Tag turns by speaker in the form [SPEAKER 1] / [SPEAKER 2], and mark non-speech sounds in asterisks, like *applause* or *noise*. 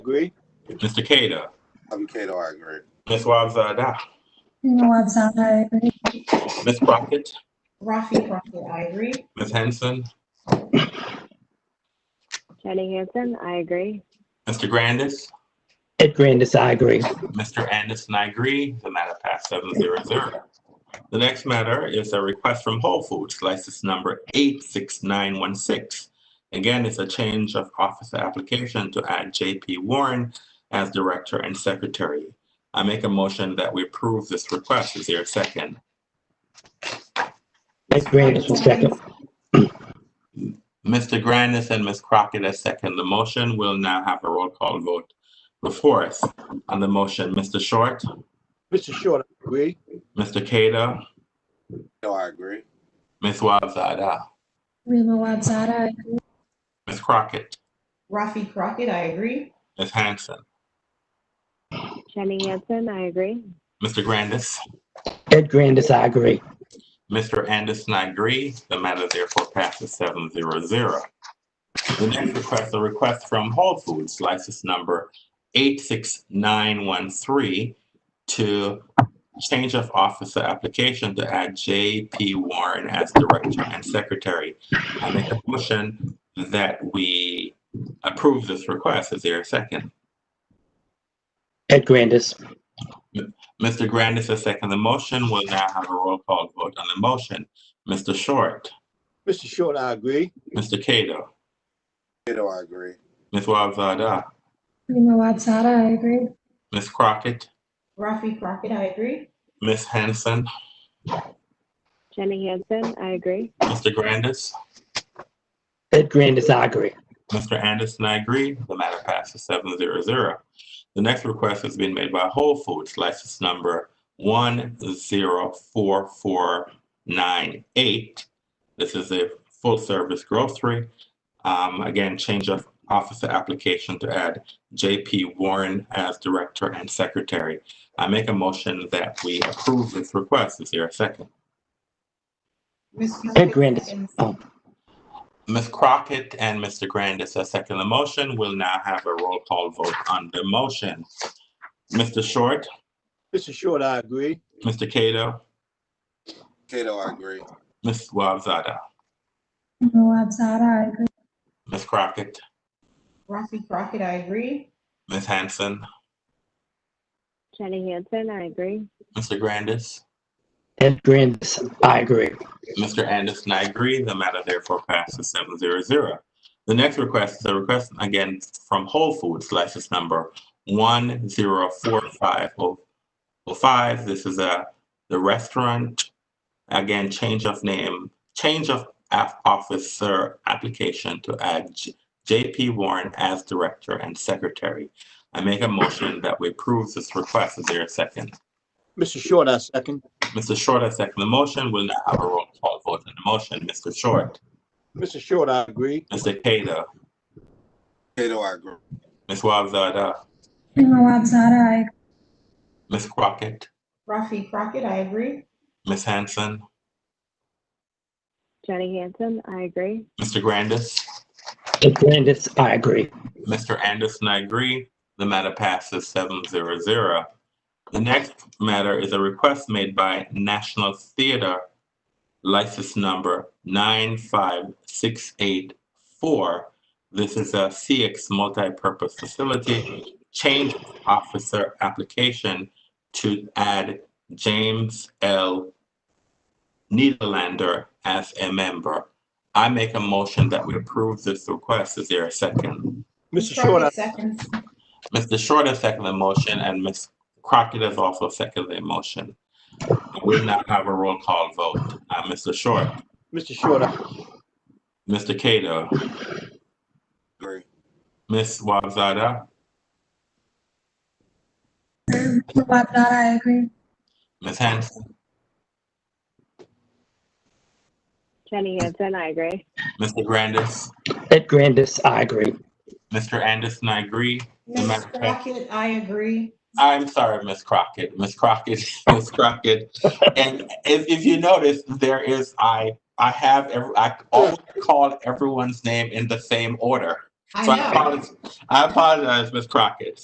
[SPEAKER 1] Agree?
[SPEAKER 2] Mr. Kato,
[SPEAKER 1] Bobby Cato, I agree.
[SPEAKER 2] Ms. Wahab Zada,
[SPEAKER 3] Rima Wabzada, I agree.
[SPEAKER 2] Ms. Crockett,
[SPEAKER 4] Rafi Crockett, I agree.
[SPEAKER 2] Ms. Henson,
[SPEAKER 5] Jenny Hansen, I agree.
[SPEAKER 2] Mr. Grandis,
[SPEAKER 6] Ed Grandis, I agree.
[SPEAKER 2] Mr. Anderson, I agree. The matter passed seven zero zero. The next matter is a request from Whole Foods, license number eight six nine one six. Again, it's a change of officer application to add J.P. Warren as director and secretary. I make a motion that we approve this request. Is there a second?
[SPEAKER 6] Ed Grandis will second.
[SPEAKER 2] Mr. Grandis and Ms. Crockett has second the motion. We'll now have a roll call vote before us on the motion. Mr. Short,
[SPEAKER 1] Mr. Short, I agree.
[SPEAKER 2] Mr. Kato,
[SPEAKER 1] No, I agree.
[SPEAKER 2] Ms. Wabzada,
[SPEAKER 3] Rima Wabzada, I agree.
[SPEAKER 2] Ms. Crockett,
[SPEAKER 4] Rafi Crockett, I agree.
[SPEAKER 2] Ms. Hanson,
[SPEAKER 5] Jenny Hansen, I agree.
[SPEAKER 2] Mr. Grandis,
[SPEAKER 6] Ed Grandis, I agree.
[SPEAKER 2] Mr. Anderson, I agree. The matter therefore passes seven zero zero. The next request, a request from Whole Foods, license number eight six nine one three to change of officer application to add J.P. Warren as director and secretary. I make a motion that we approve this request. Is there a second?
[SPEAKER 6] Ed Grandis,
[SPEAKER 2] Mr. Grandis has seconded the motion. We'll now have a roll call vote on the motion. Mr. Short,
[SPEAKER 1] Mr. Short, I agree.
[SPEAKER 2] Mr. Cato,
[SPEAKER 1] Cato, I agree.
[SPEAKER 2] Ms. Wabzada,
[SPEAKER 3] Rima Wabzada, I agree.
[SPEAKER 2] Ms. Crockett,
[SPEAKER 4] Rafi Crockett, I agree.
[SPEAKER 2] Ms. Hanson,
[SPEAKER 5] Jenny Hansen, I agree.
[SPEAKER 2] Mr. Grandis,
[SPEAKER 6] Ed Grandis, I agree.
[SPEAKER 2] Mr. Anderson, I agree. The matter passes seven zero zero. The next request has been made by Whole Foods, license number one zero four four nine eight. This is a full-service grocery. Um, again, change of officer application to add J.P. Warren as director and secretary. I make a motion that we approve this request. Is there a second?
[SPEAKER 4] Ms.
[SPEAKER 6] Ed Grandis,
[SPEAKER 4] Crockett,
[SPEAKER 6] oh,
[SPEAKER 2] Ms. Crockett and Mr. Grandis has seconded the motion. We'll now have a roll call vote on the motion. Mr. Short,
[SPEAKER 1] Mr. Short, I agree.
[SPEAKER 2] Mr. Cato,
[SPEAKER 1] Cato, I agree.
[SPEAKER 2] Ms. Wabzada,
[SPEAKER 3] Rima Wabzada, I agree.
[SPEAKER 2] Ms. Crockett,
[SPEAKER 4] Rafi Crockett, I agree.
[SPEAKER 2] Ms. Hanson,
[SPEAKER 5] Jenny Hansen, I agree.
[SPEAKER 2] Mr. Grandis,
[SPEAKER 6] Ed Grandis, I agree.
[SPEAKER 2] Mr. Anderson, I agree. The matter therefore passes seven zero zero. The next request is a request again from Whole Foods, license number one zero four five oh oh five. This is a, the restaurant, again, change of name, change of af- officer application to add J- JP Warren as director and secretary. I make a motion that we approve this request. Is there a second?
[SPEAKER 1] Mr. Short, I second.
[SPEAKER 2] Mr. Short, I second the motion. We'll now have a roll call vote on the motion. Mr. Short,
[SPEAKER 1] Mr. Short, I agree.
[SPEAKER 2] Mr. Kato,
[SPEAKER 1] Cato, I agree.
[SPEAKER 2] Ms. Wabzada,
[SPEAKER 3] Rima Wabzada, I agree.
[SPEAKER 2] Ms. Crockett,
[SPEAKER 4] Rafi Crockett, I agree.
[SPEAKER 2] Ms. Hanson,
[SPEAKER 5] Jenny Hansen, I agree.
[SPEAKER 2] Mr. Grandis,
[SPEAKER 6] Ed Grandis, I agree.
[SPEAKER 2] Mr. Anderson, I agree. The matter passes seven zero zero. The next matter is a request made by National Theater, license number nine five six eight four. This is a CX multipurpose facility, change officer application to add James L. Niederlander as a member. I make a motion that we approve this request. Is there a second?
[SPEAKER 1] Mr.
[SPEAKER 4] Ms.
[SPEAKER 1] Short, I
[SPEAKER 4] Crockett seconds.
[SPEAKER 2] Mr. Short has seconded the motion and Ms. Crockett has also seconded the motion. We now have a roll call vote. Uh, Mr. Short,
[SPEAKER 1] Mr. Short, I
[SPEAKER 2] Mr. Cato,
[SPEAKER 1] agree.
[SPEAKER 2] Ms. Wabzada,
[SPEAKER 3] Rima Wabzada, I agree.
[SPEAKER 2] Ms. Hanson,
[SPEAKER 5] Jenny Hansen, I agree.
[SPEAKER 2] Mr. Grandis,
[SPEAKER 6] Ed Grandis, I agree.
[SPEAKER 2] Mr. Anderson, I agree.
[SPEAKER 4] Ms.
[SPEAKER 2] matter of fact-
[SPEAKER 4] Crockett, I agree.
[SPEAKER 2] I'm sorry, Ms. Crockett, Ms. Crockett, *laughs* Ms. Crockett. And if, if you notice, there is, I, I have, every- I always call everyone's name in the same order.
[SPEAKER 4] I
[SPEAKER 2] So
[SPEAKER 4] know.
[SPEAKER 2] apologize- I apologize, Ms. Crockett.